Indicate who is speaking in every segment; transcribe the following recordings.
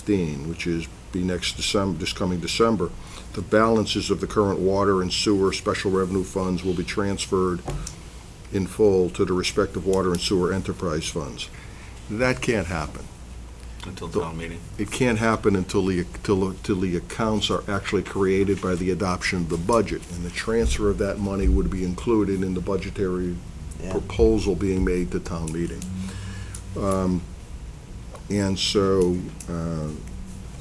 Speaker 1: 15, which is be next December, this coming December. The balances of the current water and sewer special revenue funds will be transferred in full to the respective water and sewer enterprise funds. That can't happen.
Speaker 2: Until town meeting.
Speaker 1: It can't happen until the, till, till the accounts are actually created by the adoption of the budget. And the transfer of that money would be included in the budgetary proposal being made to town meeting. Um, And so, uh,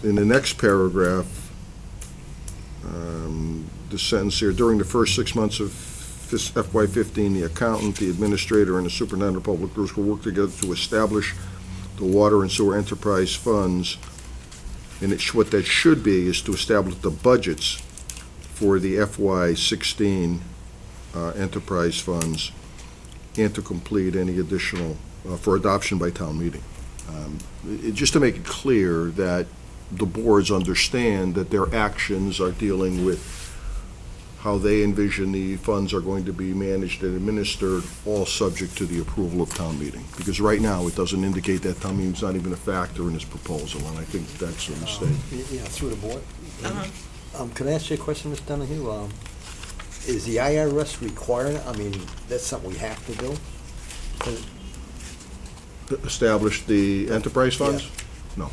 Speaker 1: in the next paragraph, um, the sentence here, during the first six months of fis- FY fifteen, the accountant, the administrator, and the superintendent of public works will work together to establish the water and sewer enterprise funds. And it's, what that should be is to establish the budgets for the FY sixteen uh, enterprise funds and to complete any additional, uh, for adoption by town meeting. Um, i- Just to make it clear that the boards understand that their actions are dealing with how they envision the funds are going to be managed and administered, all subject to the approval of town meeting. Because right now, it doesn't indicate that town meeting's not even a factor in this proposal, and I think that's a mistake.
Speaker 3: Yeah, through the board.
Speaker 4: Uh-huh.
Speaker 3: Um, can I ask you a question, Ms. Donahue? Um, is the IRS requiring, I mean, that's something we have to do?
Speaker 1: Establish the enterprise funds?
Speaker 4: They
Speaker 2: No,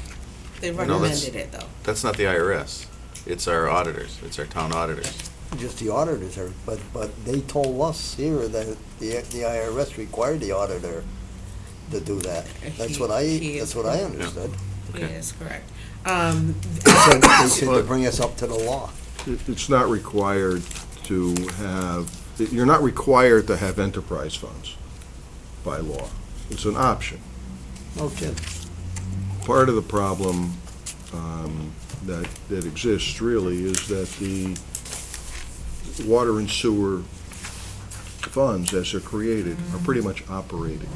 Speaker 2: that's-
Speaker 4: recommended it, though.
Speaker 2: That's not the IRS. It's our auditors. It's our town auditors.
Speaker 3: Just the auditors are, but, but they told us here that the, the IRS required the auditor to do that. That's what I,
Speaker 4: He- he
Speaker 3: that's
Speaker 4: is-
Speaker 3: what I understood.
Speaker 2: Okay.
Speaker 4: Yes, correct. Um,
Speaker 3: They said- they said to bring us up to the law.
Speaker 1: It- It's not required to have, you're not required to have enterprise funds by law. It's an option.
Speaker 3: No kidding.
Speaker 1: part of the problem um, that, that exists really is that the water and sewer funds, as they're created, are pretty much operated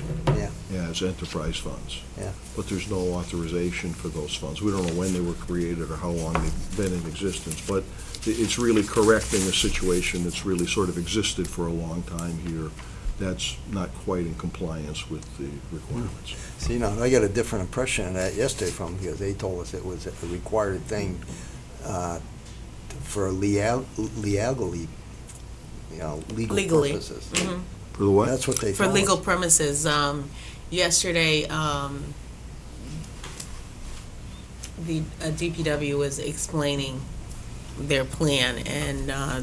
Speaker 3: Yeah.
Speaker 1: as enterprise funds.
Speaker 3: Yeah.
Speaker 1: But there's no authorization for those funds. We don't know when they were created or how long they've been in existence, but i- it's really correcting a situation that's really sort of existed for a long time here that's not quite in compliance with the requirements.
Speaker 3: See, now, I got a different impression of that yesterday from, because they told us it was a required thing uh, for leal- legally, you know, legal
Speaker 4: Legally.
Speaker 3: purposes.
Speaker 4: mhm.
Speaker 1: For the what?
Speaker 3: That's what they
Speaker 4: For
Speaker 3: told us.
Speaker 4: legal premises, um, yesterday, um, the uh, DPW was explaining their plan, and, uh,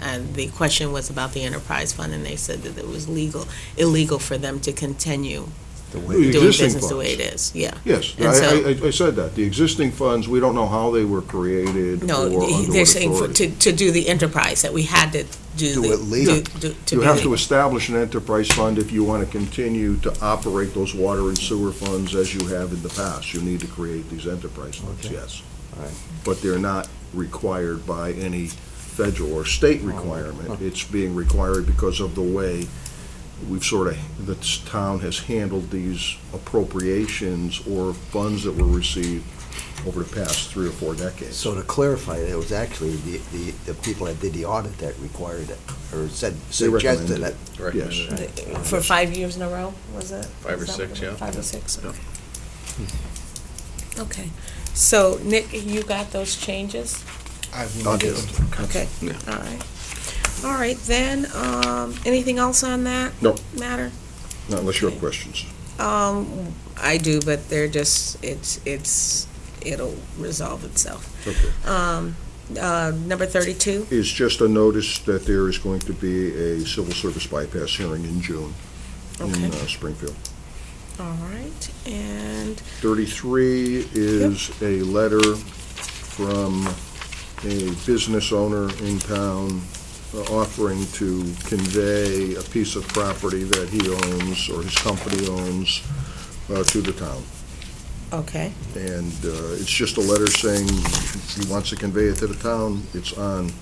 Speaker 4: and the question was about the enterprise fund, and they said that it was legal, illegal for them to continue
Speaker 3: The
Speaker 1: The
Speaker 3: way-
Speaker 4: doing
Speaker 1: existing
Speaker 4: business the way it
Speaker 1: funds.
Speaker 4: is, yeah.
Speaker 1: Yes,
Speaker 4: And so-
Speaker 1: I- I, I, I said that. The existing funds, we don't know how they were created or
Speaker 4: No,
Speaker 1: under what
Speaker 4: they're saying for-
Speaker 1: authority.
Speaker 4: to, to do the enterprise, that we had to do
Speaker 3: Do
Speaker 4: the.
Speaker 3: it legal.
Speaker 4: do- do- to
Speaker 1: You
Speaker 4: be
Speaker 1: have to
Speaker 4: legal.
Speaker 1: establish an enterprise fund if you want to continue to operate those water and sewer funds as you have in the past. You need to create these enterprise funds,
Speaker 3: Okay.
Speaker 1: yes.
Speaker 3: All right.
Speaker 1: But they're not required by any federal or
Speaker 3: Oh.
Speaker 1: state requirement. It's being required because of the way we've sort of, the town has handled these appropriations or funds that were received over the past three or four decades.
Speaker 3: So to clarify, it was actually the, the, the people that did the audit that required it, or said, suggested
Speaker 1: recommended
Speaker 3: it.
Speaker 1: Yes.
Speaker 4: For five years in a row, was it?
Speaker 2: Five or
Speaker 4: Is that
Speaker 2: six,
Speaker 4: what it-
Speaker 2: yeah.
Speaker 4: Five or six, okay. Okay, so Nick, you got those changes?
Speaker 1: I'll get them.
Speaker 4: Okay,
Speaker 2: Yeah.
Speaker 4: all right. All right, then, um, anything else on that?
Speaker 1: No.
Speaker 4: Matter?
Speaker 1: Not unless you have questions.
Speaker 4: Um, I do, but they're just, it's, it's, it'll resolve itself.
Speaker 1: Okay.
Speaker 4: Um, uh, number thirty-two,
Speaker 1: It's just a notice that there is going to be a civil service bypass hearing in June
Speaker 4: Okay.
Speaker 1: in uh, Springfield.
Speaker 4: all right, and,
Speaker 1: 33 is a letter from a business owner in town uh, offering to convey a piece of property that he owns or his company owns uh, to the town.
Speaker 4: okay,
Speaker 1: And uh, it's just a letter saying he wants to convey it to the town. It's on, uh,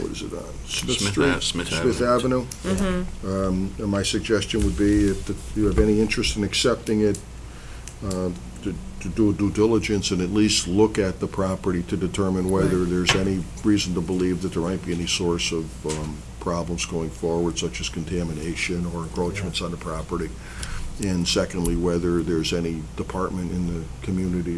Speaker 1: what is it on? Smith
Speaker 2: Smith
Speaker 1: Street?
Speaker 2: Ave- Smith
Speaker 1: Smith Avenue.
Speaker 2: Avenue.
Speaker 1: Um, and My suggestion would be, if the- you have any interest in accepting it, uh, to to do due diligence and at least look at the property to determine whether there's any reason to believe that there might be any source of um, problems going forward, such as contamination or encroachments on the property. And secondly, whether there's any department in the community